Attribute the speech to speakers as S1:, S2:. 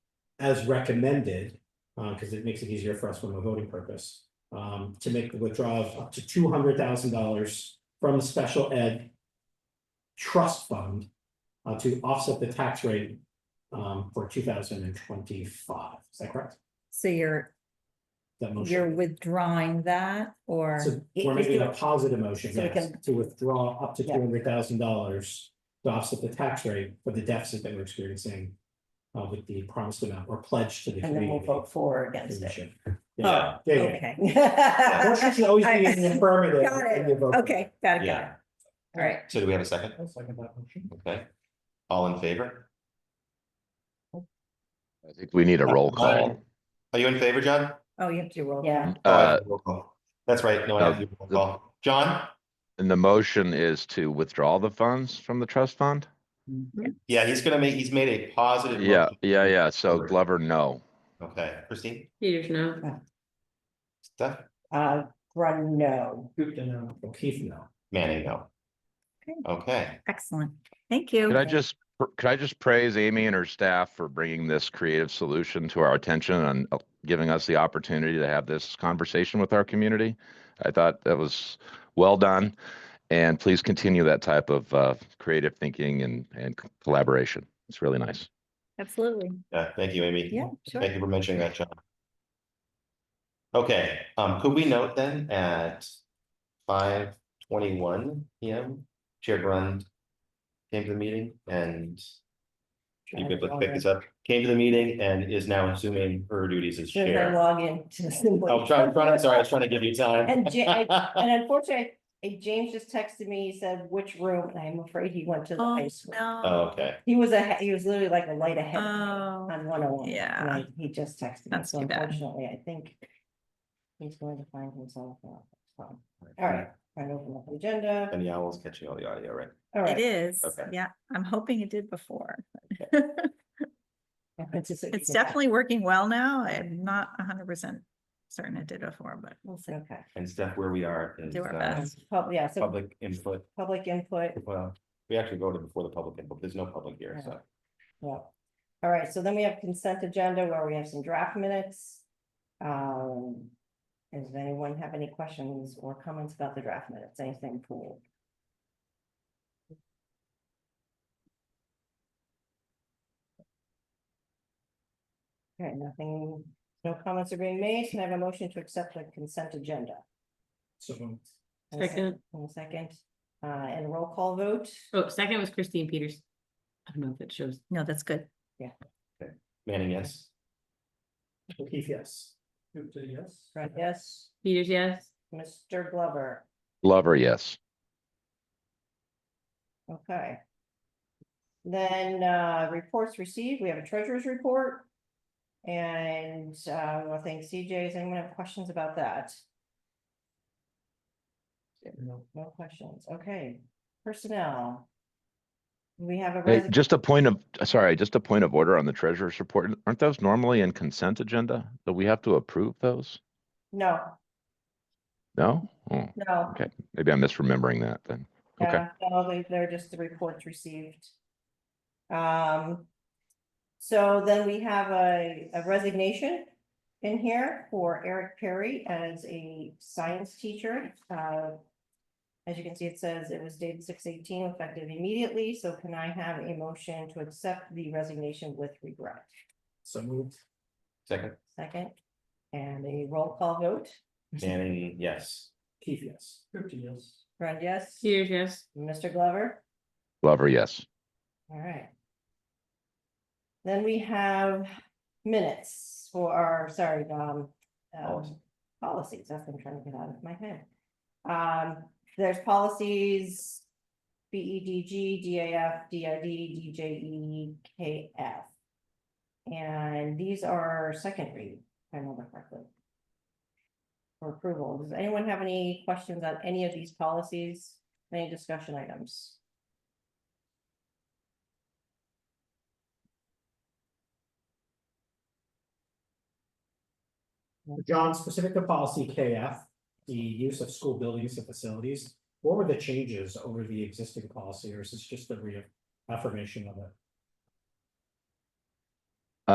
S1: as recommended, uh, because it makes it easier for us from a voting purpose, um, to make the withdrawal of up to two hundred thousand dollars from the special ed trust fund uh, to offset the tax rate um, for two thousand and twenty-five. Is that correct?
S2: So you're,
S1: That
S2: you're
S1: motion.
S2: withdrawing that or?
S1: So
S2: it-
S1: we're
S2: it-
S1: making a positive motion,
S2: So we
S1: yes,
S2: can-
S1: to withdraw up to two
S2: Yeah.
S1: hundred thousand dollars to offset the tax rate for the deficit that we're experiencing uh, with the promised amount or pledge to the
S3: And then we'll
S1: community.
S3: vote for or against it.
S1: commission. Yeah, yeah, yeah.
S2: Okay,
S1: Yeah, Motion should always be in the affirmative.
S2: Got it.
S1: when you vote.
S2: okay, got it, got it.
S4: Yeah,
S2: All right,
S4: so do we have a second?
S1: I'll second that motion.
S4: Okay. All in favor?
S5: I think we need a roll
S4: Aye.
S5: call.
S4: Are you in favor, John?
S2: oh, you have to roll.
S3: Yeah,
S4: Oh, I
S5: Uh,
S4: have to roll call. That's right, no, I have to roll call. John?
S5: and the motion is to withdraw the funds from the trust fund?
S4: Yeah, he's gonna make, he's made a positive.
S5: Yeah,
S4: motion.
S5: yeah, yeah. So
S4: Right.
S5: Glover, no.
S4: Okay, Christine,
S6: Peters, no.
S4: Steph,
S3: uh, Grun, no.
S1: Gupta, no. O'Keefe, no.
S4: Manning, no.
S2: Okay.
S4: Okay,
S2: Excellent, thank you.
S5: Could I just, pr- could I just praise Amy and her staff for bringing this creative solution to our attention and uh, giving us the opportunity to have this conversation with our community? I thought that was well done. And please continue that type of uh, creative thinking and, and collaboration. It's really nice.
S2: Absolutely,
S4: yeah, thank you, Amy.
S2: yeah, sure.
S4: Thank you for mentioning that, John. Okay, um, could we note then at five twenty-one PM, Chair Grund came to the meeting and you could look- pick this up, came to the meeting and is now assuming her duties as
S3: Should I
S4: chair.
S3: log in to the?
S4: Oh, trying, trying, sorry, I was trying to give you time.
S3: And um, Ja- And unfortunately, eh, James just texted me, he said which room, and I'm afraid he went to the
S2: Oh,
S3: high school.
S2: no.
S4: Okay,
S3: He was a, he was literally like a light ahead of me
S2: Oh,
S3: on one oh one.
S2: yeah.
S3: He just texted me,
S2: That's
S3: so
S2: too bad.
S3: unfortunately, I think he's going to find himself. out. So, All right, trying to open up the agenda,
S4: and the owl's catching all the audio, right?
S3: all
S2: it
S3: right.
S2: is,
S4: Okay.
S2: yeah, I'm hoping it did before.
S3: It's
S2: It's definitely working well now, I'm not hundred percent certain it did before, but we'll see.
S3: Okay,
S4: And Steph, where we are is
S2: Do our
S4: uh,
S2: best.
S3: Pub- yeah, so
S4: public input,
S3: public input,
S4: well, uh, we actually voted before the public input, there's no public here, so.
S3: Yeah. All right, so then we have consent agenda where we have some draft minutes. Um, does anyone have any questions or comments about the draft minutes, anything cool? Okay, nothing, no comments are being made, can I have a motion to accept the consent agenda?
S1: So moved.
S3: And a sec-
S6: Second.
S3: and a second, uh, and a roll call vote,
S6: Oh, second was Christine Peters. I don't know if it shows.
S2: No, that's good.
S4: Manning, yes?
S1: O'Keefe, yes. Gupta, yes.
S3: right, yes,
S6: Peters, yes.
S3: Mr. Glover,
S5: Glover, yes.
S3: Okay. Then, uh, reports received, we have a treasurer's report. And, uh, I want to thank CJ, does anyone have questions about that? No. No questions, okay, personnel. We have a.
S5: Hey,
S3: resi-
S5: just a point of, sorry, just a point of order on the treasurer's report. Aren't those normally in consent agenda? Do we have to approve those?
S3: No,
S5: No? Oh,
S3: no,
S5: okay, maybe I'm misremembering that then. Okay,
S3: yeah, no, they- they're just the reports received. Um. So then we have a, a resignation in here for Eric Perry as a science teacher. Uh, As you can see, it says it was dated six eighteen effective immediately, so can I have a motion to accept the resignation with regret?
S1: So moved.
S4: Second,
S3: Second, and a roll call vote,
S4: Manning, yes.
S1: Keith, yes. Gupta, yes.
S3: Friend, yes,
S6: Peters, yes.
S3: Mr. Glover?
S5: Glover, yes.
S3: All right. Then we have minutes for our, sorry, um,
S4: Policy.
S3: um, policies, that's what I'm trying to get out of my head. Um, there's policies, B E D G, D A F, D I D, D J E, K F. And these are second read, if I remember correctly. For approval, does anyone have any questions on any of these policies, any discussion items?
S1: John, specific to policy KF, the use of school buildings and facilities, what were the changes over the existing policy, or is this just the reaffirmation of it?